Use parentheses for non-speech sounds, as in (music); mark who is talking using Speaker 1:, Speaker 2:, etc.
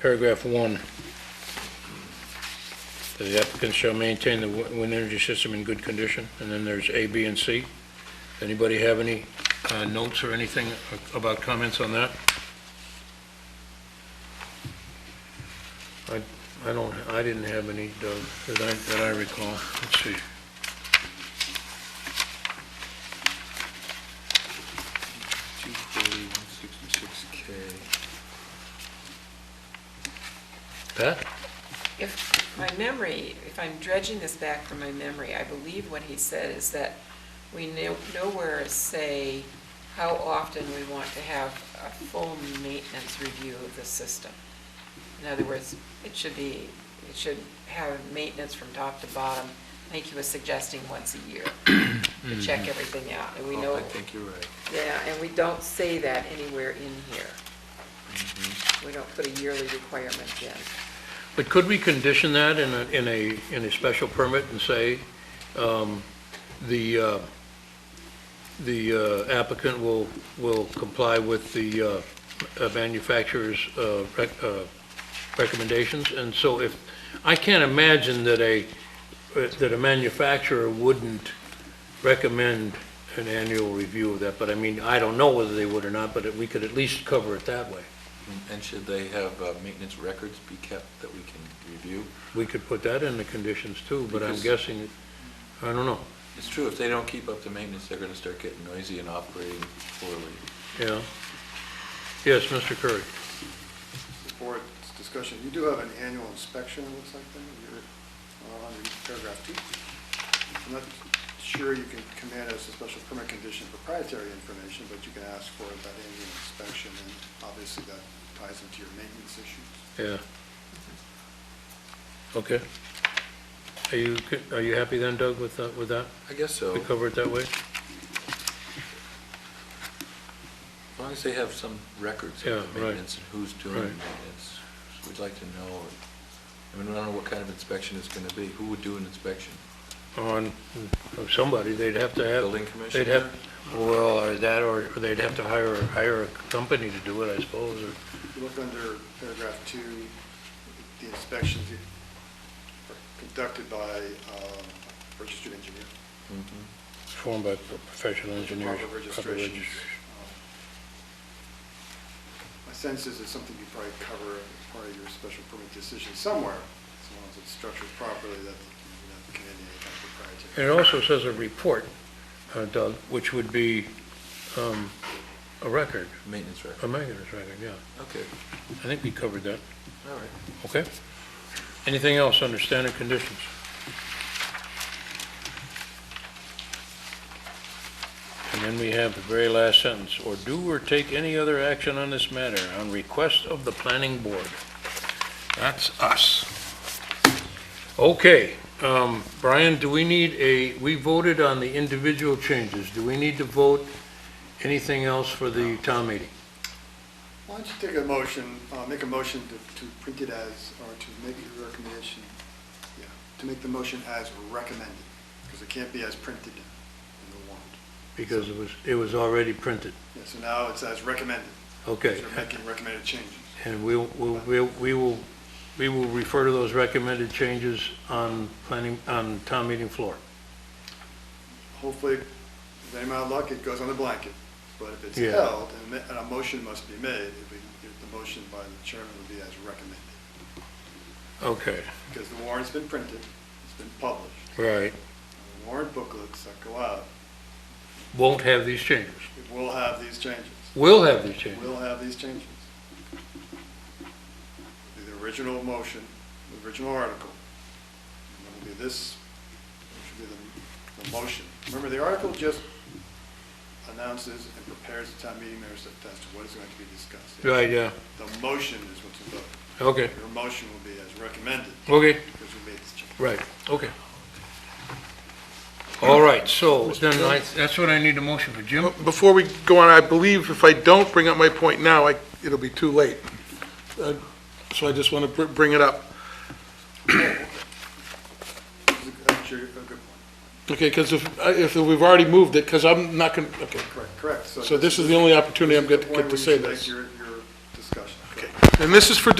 Speaker 1: paragraph one. That The applicant shall maintain the wi- wind energy system in good condition, and then there's A, B, and C. Anybody have any uh, notes or anything about comments on that? I, I don't, I didn't have any, Doug, that I, that I recall. Let's see.
Speaker 2: Two forty, one sixty-six K.
Speaker 1: Pat?
Speaker 3: If my memory, if I'm dredging this back from my memory, I believe what he said is that we no- nowhere say how often we want to have a full maintenance review of the system. In other words, it should be, it should have maintenance from top to bottom. I think he was suggesting once a
Speaker 2: (clears throat)
Speaker 3: year to check everything out, and we
Speaker 2: Mm-hmm. Oh,
Speaker 3: know,
Speaker 2: I think you're right.
Speaker 3: yeah, and we don't say that anywhere in here.
Speaker 2: Mm-hmm.
Speaker 3: We don't put a yearly requirement in.
Speaker 1: But could we condition that in a, in a, in a special permit and say, um, the, uh, the uh, applicant will, will comply with the uh, uh, manufacturer's uh, rec- uh, recommendations? And so if, I can't imagine that a, that a manufacturer wouldn't recommend an annual review of that, but I mean, I don't know whether they would or not, but we could at least cover it that way.
Speaker 2: And should they have uh, maintenance records be kept that we can review?
Speaker 1: We could put that in the conditions too, but I'm
Speaker 2: Because-
Speaker 1: guessing, I don't know,
Speaker 2: It's true, if they don't keep up the maintenance, they're gonna start getting noisy and operating poorly.
Speaker 1: yeah. Yes, Mr. Curry.
Speaker 4: board's discussion, you do have an annual inspection, it looks like, then, you're uh, under paragraph two. I'm not sure you can command as a special permit condition proprietary information, but you can ask for that annual inspection, and obviously that ties into your maintenance issues.
Speaker 1: Yeah. Okay. Are you, co- are you happy then, Doug, with that, with that?
Speaker 2: I guess so,
Speaker 1: We
Speaker 2: as
Speaker 1: cover it that way?
Speaker 2: long as they have some records
Speaker 1: Yeah,
Speaker 2: of
Speaker 1: right.
Speaker 2: the maintenance and who's doing the
Speaker 1: Right.
Speaker 2: maintenance. So We'd like to know, I mean, we don't know what kind of inspection it's gonna be, who would do an inspection?
Speaker 1: On, of somebody, they'd have to have.
Speaker 2: Building
Speaker 1: They'd have,
Speaker 2: commissioner?
Speaker 1: well, or that, or or they'd have to hire, hire a company to do it, I suppose, or.
Speaker 4: You look under paragraph two, the inspections are conducted by um, registered engineer.
Speaker 2: Mhm.
Speaker 1: Formed by professional engineers.
Speaker 4: Proper registrations. My sense is it's something you probably cover as part of your special permit decision somewhere, as long as it's structured properly, that you're not committing any kind of
Speaker 1: And
Speaker 4: proprietary.
Speaker 1: it also says a report, uh, Doug, which would be um, a record,
Speaker 2: Maintenance
Speaker 1: a
Speaker 2: record,
Speaker 1: maintenance record, yeah.
Speaker 2: okay,
Speaker 1: I think we covered that,
Speaker 2: all right.
Speaker 1: okay? Anything else under standard conditions? And then we have the very last sentence, or do or take any other action on this matter on request of the planning board. That's us. Okay, um, Brian, do we need a, we voted on the individual changes. Do we need to vote anything else for the town meeting?
Speaker 4: Why don't you take a motion, uh, make a motion to, to print it as, or to make your recommendation, yeah, to make the motion as recommended, because it can't be as printed in the warrant.
Speaker 1: Because it was, it was already printed.
Speaker 4: Yeah, so now it's as recommended,
Speaker 1: Okay.
Speaker 4: because you're making recommended changes.
Speaker 1: And we will, we'll- we'll- we will, we will refer to those recommended changes on planning, on town meeting floor.
Speaker 4: hopefully, with any amount of luck, it goes on the blanket. But if it's
Speaker 1: Yeah.
Speaker 4: held, and ma- and a motion must be made, if we- if the motion by the chairman would be as recommended.
Speaker 1: Okay,
Speaker 4: Because the warrant's been printed, it's been published,
Speaker 1: right.
Speaker 4: and the warrant booklets that go out,
Speaker 1: Won't have these changes.
Speaker 4: it will have these changes.
Speaker 1: Will have these changes.
Speaker 4: Will have these changes. Be The original motion, the original article, and it'll be this, which will be the, the motion. Remember, the article just announces and prepares the town meeting members as to what is going to be discussed.
Speaker 1: Right, yeah,
Speaker 4: The motion is what's involved.
Speaker 1: okay,
Speaker 4: Your motion will be as recommended,
Speaker 1: okay,
Speaker 4: because we made this change.
Speaker 1: right, okay. All right, so then I, that's what I need a motion for. Jim?
Speaker 5: Before we go on, I believe if I don't bring up my point now, I- it'll be too late. Uh, So I just want to bring it up.
Speaker 4: This is a- That's your, a good point.
Speaker 5: Okay, because if, I- if we've already moved it, because I'm not going, to okay.
Speaker 4: Correct, correct.
Speaker 5: So this is the only opportunity I'm going to
Speaker 4: the point
Speaker 5: get to
Speaker 4: where you
Speaker 5: say
Speaker 4: should
Speaker 5: this.
Speaker 4: make Your, your discussion.
Speaker 5: And this is for